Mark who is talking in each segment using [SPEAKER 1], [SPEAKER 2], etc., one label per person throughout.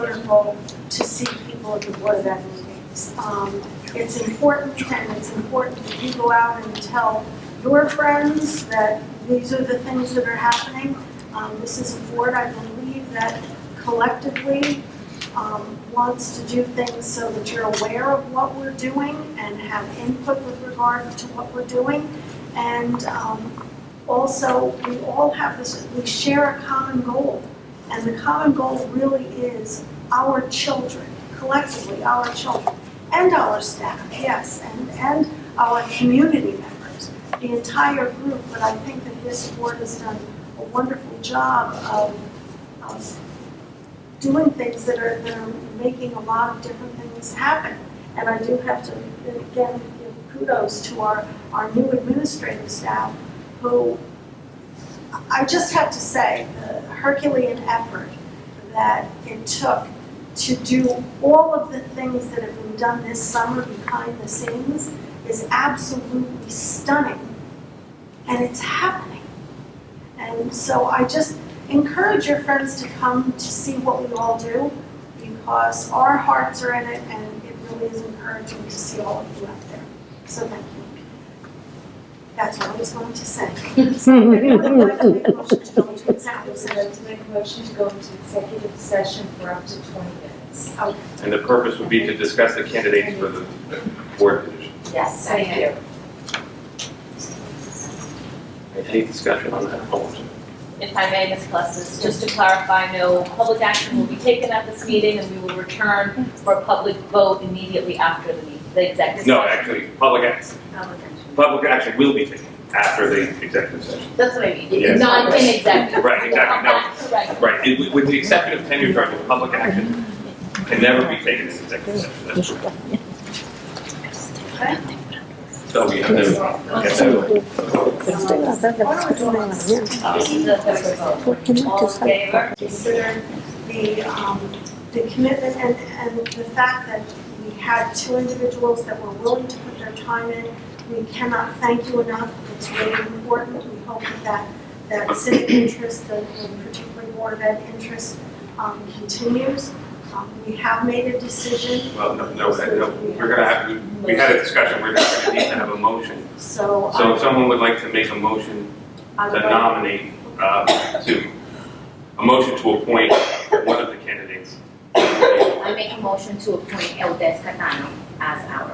[SPEAKER 1] wonderful to see people at the Board of Ed meetings. Um, It's important, and it's important that you go out and tell your friends that these are the things that are happening. Um, This is a board, I believe, that collectively um, wants to do things so that you're aware of what we're doing and have input with regard to what we're doing. And um, also, we all have this, we share a common goal. And the common goal really is our children, collectively, our children, and our staff, yes, and, and our community members, the entire group. But I think that this board has done a wonderful job of, of doing things that are, that are making a lot of different things happen. And I do have to, again, give kudos to our, our new administrative staff who I just have to say, the Herculean effort that it took to do all of the things that have been done this summer behind the scenes is absolutely stunning. And it's happening. And so I just encourage your friends to come to see what we all do because our hearts are in it and it really is encouraging to see all of you out there. So thank you. That's what I was going to say.
[SPEAKER 2] I'd like to make a motion to go into executive session for up to 20 minutes.
[SPEAKER 3] And the purpose would be to discuss the candidates for the board position.
[SPEAKER 2] Yes, thank you.
[SPEAKER 3] Any discussion on that? Oh,
[SPEAKER 4] If I may, Ms. Colestis, just to clarify, no public action will be taken at this meeting, and we will return for a public vote immediately after the meeting, the executive.
[SPEAKER 3] No,
[SPEAKER 4] session.
[SPEAKER 3] actually, public action,
[SPEAKER 4] Public action.
[SPEAKER 3] public action will be taken after the executive session.
[SPEAKER 4] That's what I mean,
[SPEAKER 3] Yes.
[SPEAKER 4] not in executive.
[SPEAKER 3] Right, exactly, no,
[SPEAKER 4] Correct.
[SPEAKER 3] right, It- with the exception of tenure charges, public action can never be taken in executive session. That's true. So we have to, get that.
[SPEAKER 4] This is the third vote. All in favor?
[SPEAKER 1] consider the, um, the commitment and, and the fact that we had two individuals that were willing to put their time in. We cannot thank you enough. It's really important. We hope that that, that civic interest, the, the particularly Board of Ed interest, um, continues. Um, we have made a decision,
[SPEAKER 3] well, no, no, no, we're gonna have, we- we had a discussion, we're just gonna need to have a motion.
[SPEAKER 1] so
[SPEAKER 3] So if
[SPEAKER 1] I,
[SPEAKER 3] someone would like to make a motion
[SPEAKER 1] I
[SPEAKER 3] to
[SPEAKER 1] would like,
[SPEAKER 3] nominate, uh, to, a motion to appoint one of the candidates.
[SPEAKER 5] I make a motion to appoint Eldes Catano as our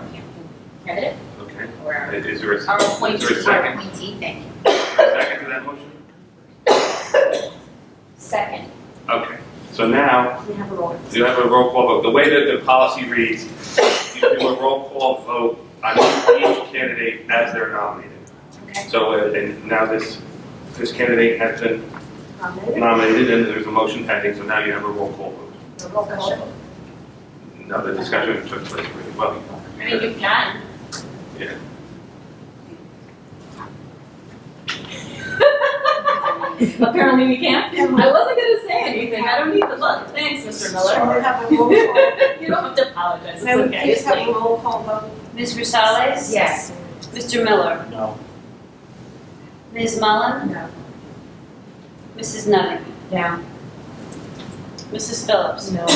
[SPEAKER 5] candidate
[SPEAKER 3] Okay,
[SPEAKER 5] or
[SPEAKER 3] is there a, is
[SPEAKER 5] our
[SPEAKER 3] there a
[SPEAKER 5] appointee, our
[SPEAKER 3] second,
[SPEAKER 5] appointee, thank you.
[SPEAKER 3] second to that motion?
[SPEAKER 5] Second.
[SPEAKER 3] Okay, so now,
[SPEAKER 1] we have a roll.
[SPEAKER 3] you have a roll call vote. The way that the policy reads, you do a roll call vote on each candidate as they're nominated.
[SPEAKER 5] Okay.
[SPEAKER 3] So, uh, and now this, this candidate has been
[SPEAKER 1] Nominated,
[SPEAKER 3] nominated, and there's a motion pending, so now you have a roll call vote.
[SPEAKER 1] the roll call.
[SPEAKER 3] Now, the discussion took place really well.
[SPEAKER 5] I mean, you can.
[SPEAKER 3] Yeah.
[SPEAKER 4] Apparently we can't. I wasn't gonna say anything, I don't need the look, thanks, Mr. Miller.
[SPEAKER 1] We have a roll call.
[SPEAKER 4] You don't have to apologize, it's
[SPEAKER 1] May we
[SPEAKER 4] okay.
[SPEAKER 1] please
[SPEAKER 4] It's
[SPEAKER 1] have
[SPEAKER 4] like-
[SPEAKER 1] a roll call vote?
[SPEAKER 6] Ms. Rosales?
[SPEAKER 5] Yes.
[SPEAKER 6] Mr. Miller?
[SPEAKER 7] No.
[SPEAKER 6] Ms. Mullen?
[SPEAKER 5] No.
[SPEAKER 6] Mrs. Nutting?
[SPEAKER 5] No.
[SPEAKER 6] Mrs. Phillips?
[SPEAKER 5] No.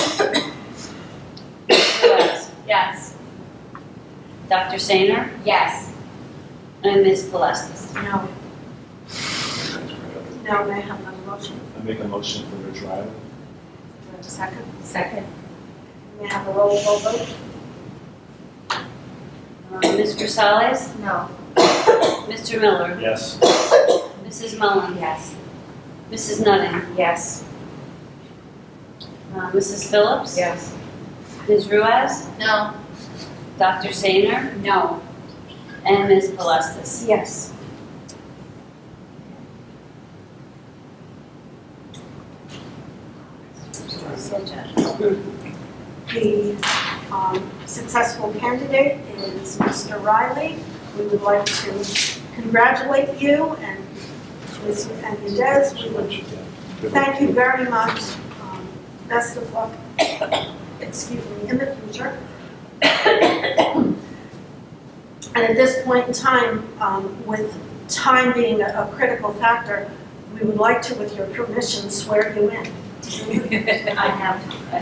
[SPEAKER 6] Mr. West?
[SPEAKER 4] Yes.
[SPEAKER 6] Dr. Sainer?
[SPEAKER 5] Yes.
[SPEAKER 6] And Ms. Pelestis?
[SPEAKER 1] No. No, may I have another motion?
[SPEAKER 7] I make a motion for the trial.
[SPEAKER 1] Do I have a second?
[SPEAKER 5] Second.
[SPEAKER 1] May I have a roll call vote?
[SPEAKER 6] Uh, Ms. Rosales?
[SPEAKER 5] No.
[SPEAKER 6] Mr. Miller?
[SPEAKER 7] Yes.
[SPEAKER 6] Mrs. Mullen?
[SPEAKER 5] Yes.
[SPEAKER 6] Mrs. Nutting?
[SPEAKER 5] Yes.
[SPEAKER 6] Uh, Mrs. Phillips?
[SPEAKER 5] Yes.
[SPEAKER 6] Ms. Ruiz?
[SPEAKER 5] No.
[SPEAKER 6] Dr. Sainer? No. And Ms. Pelestis?
[SPEAKER 1] Yes. The um, successful candidate is Mr. Riley. We would like to congratulate you and Ms. Hernandez. We would Thank you very much. Um, Best of luck, excuse me, in the future. And at this point in time, um, with time being a a critical factor, we would like to, with your permission, swear you in.
[SPEAKER 6] I have